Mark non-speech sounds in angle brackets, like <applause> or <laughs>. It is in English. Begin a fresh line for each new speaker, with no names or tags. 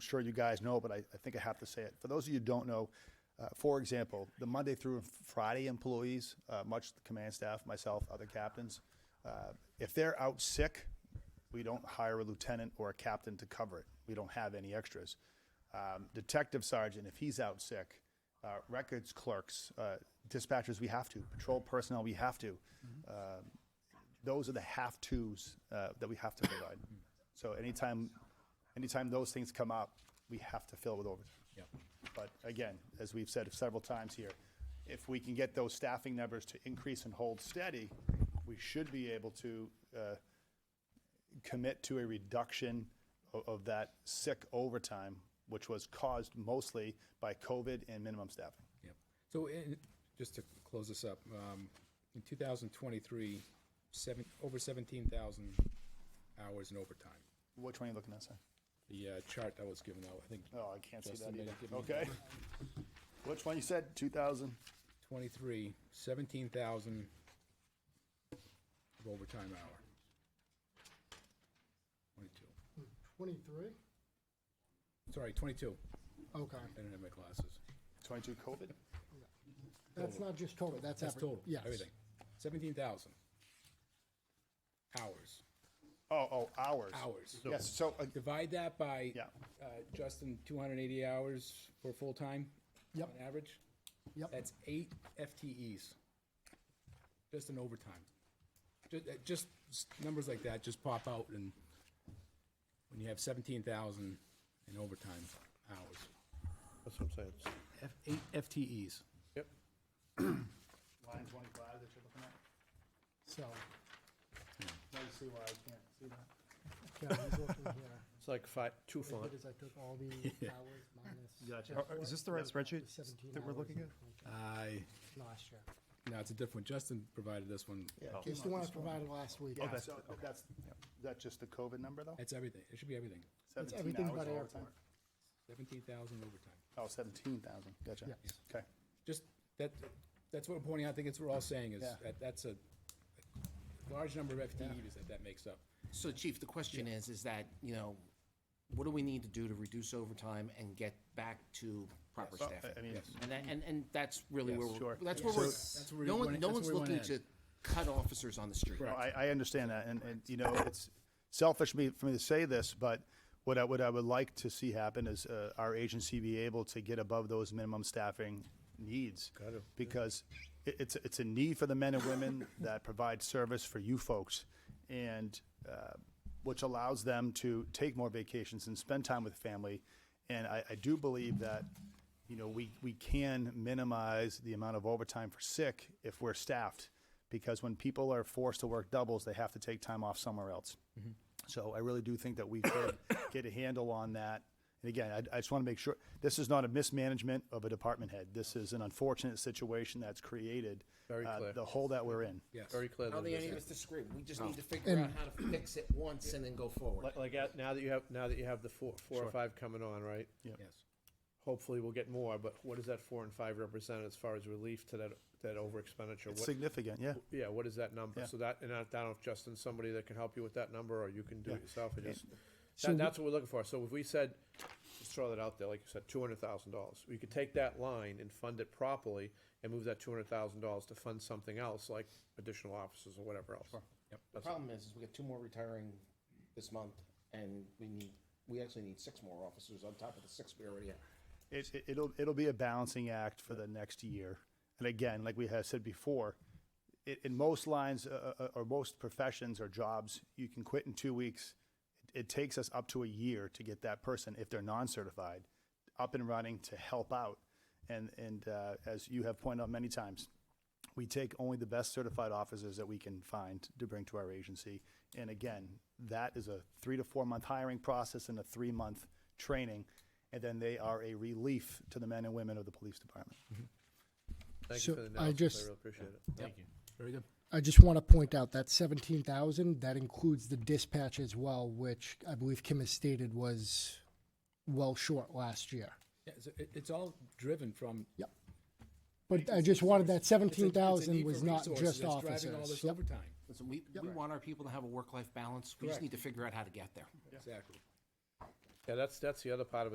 sure you guys know, but I, I think I have to say it. For those of you who don't know, uh, for example, the Monday through Friday employees, uh, much the command staff, myself, other captains, uh, if they're out sick, we don't hire a lieutenant or a captain to cover it. We don't have any extras. Um, detective sergeant, if he's out sick, uh, records clerks, uh, dispatchers, we have to. Patrol personnel, we have to. Um, those are the have tos uh, that we have to provide. So anytime, anytime those things come up, we have to fill with overtime.
Yep.
But again, as we've said several times here, if we can get those staffing numbers to increase and hold steady, we should be able to uh, commit to a reduction of, of that sick overtime, which was caused mostly by COVID and minimum staffing.
Yep. So, in, just to close this up, um, in 2023, seven, over 17,000 hours in overtime.
Which one are you looking at, sir?
The uh, chart that was given out, I think
Oh, I can't see that
Justin,
either.
give me
Okay. <laughs> Which one you said, 2,000?
23, 17,000 of overtime hour. 22.
23?
Sorry, 22.
Okay.
I didn't have my glasses.
22 COVID?
That's not just total, that's
That's
every,
total.
yes.
Everything. 17,000 hours.
Oh, oh, hours.
Hours.
Yes, so, uh,
Divide that by,
Yeah.
uh, Justin, two hundred and eighty hours for full-time?
Yep.
On average?
Yep.
That's eight FTEs. Just in overtime. Just, just s- numbers like that just pop out and when you have seventeen thousand in overtime hours.
That's what I'm saying. It's-
F, eight FTEs.
Yep.
line 25 that you're looking at?
So,
Now you see why I can't see that.
yeah, he's looking here.
It's like five, two
What I
font.
did is I took all the hours minus.
Gotcha.
just
Are-
Is this the right spreadsheet?
17
that we're
hours
looking
in
at?
the
I,
contract Last year.
no, it's a different, Justin provided this one.
It's the one I provided last week.
Oh. Yeah, so that's, that's just the COVID number, though?
That's everything. It should be everything.
It's
17
everything
hours
but
all the
airport.
time?
Seventeen thousand overtime.
Oh, 17,000, gotcha.
Yes.
Okay,
just, that, that's what we're pointing out, I think it's what we're all saying, is
Yeah.
that, that's a large number of FTEs that that makes up.
So Chief, the question is, is that, you know, what do we need to do to reduce overtime and get back to proper
Well,
staffing?
I- I mean- Yes.
And that, and, and that's really where,
Yes,
sure.
we're that's where
That's where
we're,
we
no one,
wanna-
no
that's
one's
where we wanna
looking to
end.
cut officers on the street.
No, I, I understand that, and, and, you know, it's selfish me, for me to say this, but what I, what I would like to see happen is, uh, our agency be able to get above those minimum staffing needs. Got it. Because it, it's, it's a need for the men and <coughs> women that provide service for you folks, and, uh, which allows them to take more vacations and spend time with family. And I, I do believe that, you know, we, we can minimize the amount of overtime for sick if we're staffed. Because when people are forced to work doubles, they have to take time off somewhere else.
Mm-hmm.
So I really do think that we could <coughs> get a handle on that. And again, I, I just want to make sure, this is not a mismanagement of a department head. This is an unfortunate situation that's created.
Very
uh,
clear.
The hole that we're in.
Yes.
Very clear.
I don't
that
think
it
any of
is.
us disagree. We just need to figure out how to fix it once and then go forward.
Like, like at- now that you have, now that you have the four, four or five coming on, right?
Yes.
Hopefully we'll get more, but what does that four and five represent as far as relief to that, that over expenditure?
It's
What,
significant, yeah.
yeah, what is that number?
Yeah.
So that, and I don't know if Justin's somebody that can help you with that number, or you can do it yourself, and just,
So
that, that's what we're looking for, so if we said, just throw that out there, like you said, two hundred thousand dollars, we could take that line and fund it properly, and move that two hundred thousand dollars to fund something else, like additional officers or whatever else.
The problem is, is we got two more retiring this month and we need, we actually need six more officers on top of the six we already have.
It, it- it'll, it'll be a balancing act for the next year. And again, like we had said before, i in most lines, uh, uh, or most professions or jobs, you can quit in two weeks. It takes us up to a year to get that person, if they're non-certified, up and running to help out. And, and, uh, as you have pointed out many times, we take only the best certified officers that we can find to bring to our agency. And again, that is a three to four month hiring process and a three month training. And then they are a relief to the men and women of the police department.
Thank
So
you for the
I
analysis,
just-
I really appreciate it.
Thank you. Very good.
I just want to point out that 17,000, that includes the dispatch as well, which I believe Kim has stated was well short last year.
Yeah, so it, it's all driven from.
Yep. But I just wanted that
it's a- it's a need
17,000
for
was not
resources
just
that's Driving all
officers.
this
Yep.
overtime.
Listen, we, we want our people to have a work-life balance. We just
Correct.
need to figure out how to get there.
Exactly.
Yeah, that's, that's the other part of it.